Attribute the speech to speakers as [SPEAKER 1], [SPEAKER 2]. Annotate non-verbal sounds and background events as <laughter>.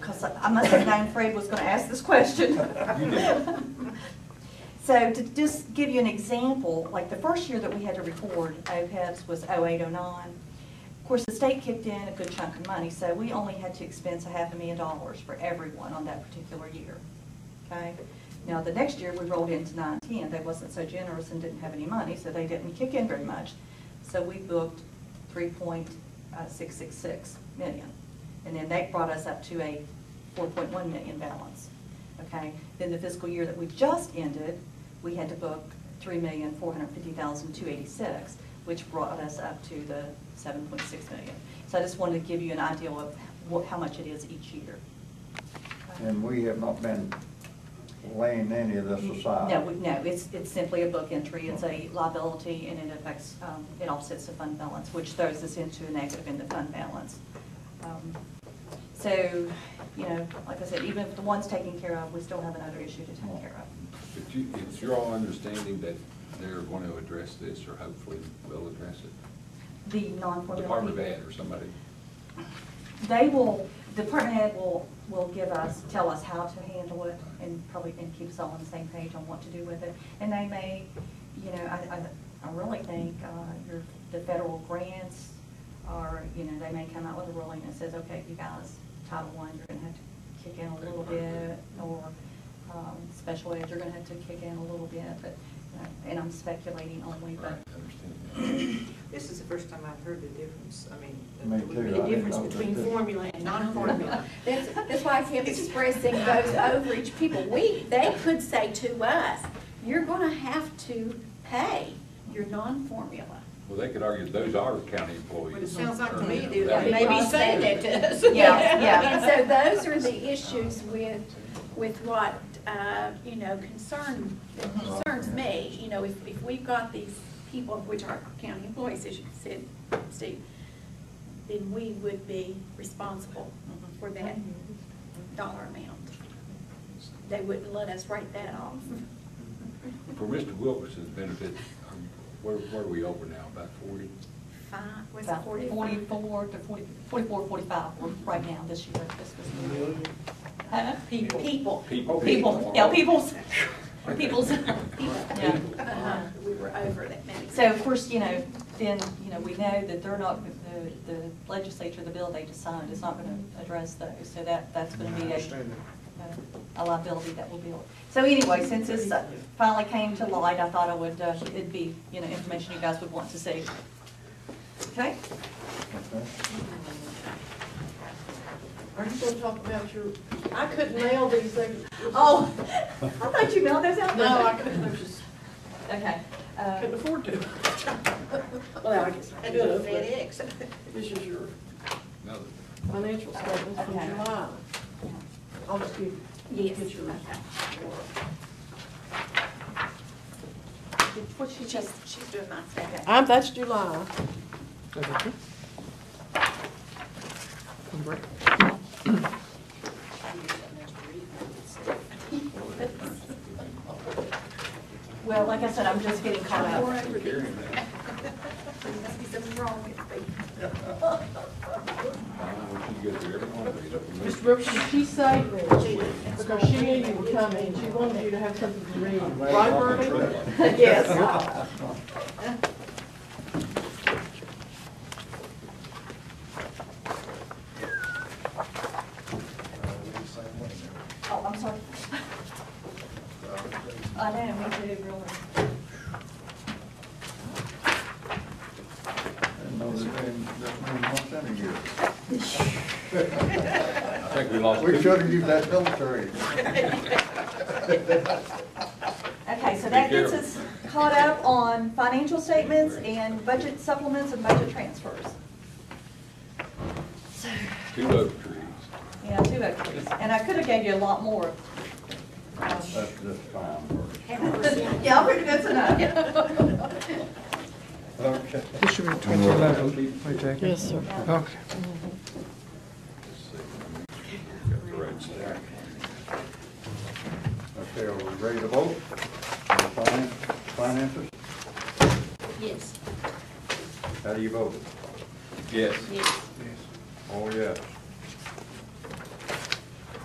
[SPEAKER 1] I'm not saying Diane Fred was gonna ask this question.
[SPEAKER 2] You did.
[SPEAKER 1] <laughs> So to just give you an example, like the first year that we had to record OPEBs was 0809. Of course, the state kicked in a good chunk of money, so we only had to expense a half a million dollars for everyone on that particular year. Okay? Now, the next year, we rolled into nine ten, they wasn't so generous and didn't have any money, so they didn't kick in very much. So we booked three point uh, six six six million. And then that brought us up to a four point one million balance. Okay, then the fiscal year that we just ended, we had to book three million, four hundred fifty thousand, two eighty-six, which brought us up to the seven point six million. So I just wanted to give you an idea of what, how much it is each year.
[SPEAKER 3] And we have not been laying any of this aside.
[SPEAKER 1] No, we- no, it's, it's simply a book entry, it's a liability, and it affects, um, it offsets the fund balance, which throws us into a negative in the fund balance. Um, So, you know, like I said, even if the one's taken care of, we still have another issue to take care of.
[SPEAKER 2] But you, it's your all understanding that they're going to address this, or hopefully will address it?
[SPEAKER 1] The non-formula.
[SPEAKER 2] Department of
[SPEAKER 1] people.
[SPEAKER 2] Ed or somebody?
[SPEAKER 1] They will, Department of Ed will, will give us, tell us how to handle it and probably, and keep us all on the same page on what to do with it. And they may, you know, I, I, I really think, uh, your, the federal grants are, you know, they may come out with a ruling that says, okay, you guys, Title One, you're gonna have to kick in a little bit, or, um, special ed, you're gonna have to kick in a little bit, but, you know, and I'm speculating only,
[SPEAKER 2] Right,
[SPEAKER 1] but
[SPEAKER 2] I understand
[SPEAKER 4] This is the first time I've heard the difference, I mean,
[SPEAKER 3] Me
[SPEAKER 4] the-
[SPEAKER 3] too, I
[SPEAKER 4] the
[SPEAKER 3] didn't
[SPEAKER 4] difference
[SPEAKER 3] know that
[SPEAKER 4] between
[SPEAKER 3] this-
[SPEAKER 4] formula and
[SPEAKER 5] <laughs>
[SPEAKER 4] non-formula.
[SPEAKER 5] That's, that's why I kept expressing those overage people, we, they could say to us, you're gonna have to pay your non-formula.
[SPEAKER 2] that. Well, they could argue those are county employees.
[SPEAKER 4] But it sounds like to
[SPEAKER 2] Or,
[SPEAKER 4] me
[SPEAKER 2] you know,
[SPEAKER 4] they-
[SPEAKER 2] that-
[SPEAKER 4] they may be
[SPEAKER 5] Because they
[SPEAKER 4] saying
[SPEAKER 5] did
[SPEAKER 4] that
[SPEAKER 5] this.
[SPEAKER 4] to us.
[SPEAKER 1] Yeah,
[SPEAKER 4] <laughs>
[SPEAKER 1] yeah.
[SPEAKER 5] And so those are the issues with, with what, uh, you know, concern, that concerns me. You know, if, if we've got these people, which are county employees, as you said, Steve, then we would be responsible for that dollar amount. They wouldn't let us write that off.
[SPEAKER 2] <laughs> For Mr. Wilkerson's benefit, um, where, where are we over now, about forty?
[SPEAKER 5] Five, was it
[SPEAKER 1] about
[SPEAKER 5] forty-five?
[SPEAKER 1] forty-four to forty, forty-four, forty-five, we're right now, this year, this was. Huh?
[SPEAKER 5] People. People.
[SPEAKER 2] People.
[SPEAKER 1] People, yeah, people's, people's, yeah.
[SPEAKER 5] Uh-huh, We were over that many.
[SPEAKER 1] So of course, you know, then, you know, we know that they're not, the, the legislature, the bill they just signed is not gonna address those, so that, that's gonna be a, a liability that will build. So anyway, since this finally came to light, I thought I would, uh, it'd be, you know, information you guys would want to see. Okay?
[SPEAKER 3] Okay.
[SPEAKER 4] Are you gonna talk about your, I couldn't nail these <laughs> things.
[SPEAKER 1] Oh, I thought you mailed those out.
[SPEAKER 4] No, I couldn't, I just
[SPEAKER 1] Okay. uh,
[SPEAKER 4] couldn't afford to. Well, I guess I could, but this is your
[SPEAKER 2] No,
[SPEAKER 4] financial statement from
[SPEAKER 1] Okay.
[SPEAKER 4] July. I'll just give,
[SPEAKER 5] Yes,
[SPEAKER 4] get yours.
[SPEAKER 5] okay.
[SPEAKER 1] What she
[SPEAKER 5] She's,
[SPEAKER 1] just,
[SPEAKER 5] she's doing my second.
[SPEAKER 4] I'm, that's July.
[SPEAKER 1] well, like I said, I'm just getting caught
[SPEAKER 5] Four
[SPEAKER 1] up.
[SPEAKER 5] over these. There must be something wrong with me.
[SPEAKER 2] I don't know if you go through every one of these. over
[SPEAKER 6] Mr.
[SPEAKER 2] there.
[SPEAKER 6] Wilkerson, she saved me, because she knew you were coming, she wanted you to have something to read.
[SPEAKER 3] <laughs>
[SPEAKER 6] Right, Bernie?
[SPEAKER 4] Yes.
[SPEAKER 1] Oh, I'm sorry. I know, me too, really.
[SPEAKER 3] Didn't know that they- that meant much in a year.
[SPEAKER 2] I think we lost.
[SPEAKER 3] We
[SPEAKER 2] two-
[SPEAKER 3] should have used <laughs> that
[SPEAKER 1] <laughs>
[SPEAKER 3] military.
[SPEAKER 1] Okay, so that
[SPEAKER 2] Be
[SPEAKER 1] gets
[SPEAKER 2] careful.
[SPEAKER 1] us caught up on financial statements and budget supplements and budget transfers.
[SPEAKER 2] Two oak trees.
[SPEAKER 1] Yeah, two extras. And I could have gave you a lot more. Um,
[SPEAKER 3] That's just fine.
[SPEAKER 1] <laughs>
[SPEAKER 3] for-
[SPEAKER 1] Yeah, I'm pretty good tonight.
[SPEAKER 4] <laughs>
[SPEAKER 3] Okay.
[SPEAKER 7] This should be 2011, right, Jackie? Yes, sir. Okay.
[SPEAKER 2] Got the right stack.
[SPEAKER 3] Okay, are we ready to vote? On the finan- Finances?
[SPEAKER 5] Yes.
[SPEAKER 3] How do you vote?
[SPEAKER 2] Yes.
[SPEAKER 3] Oh, yes.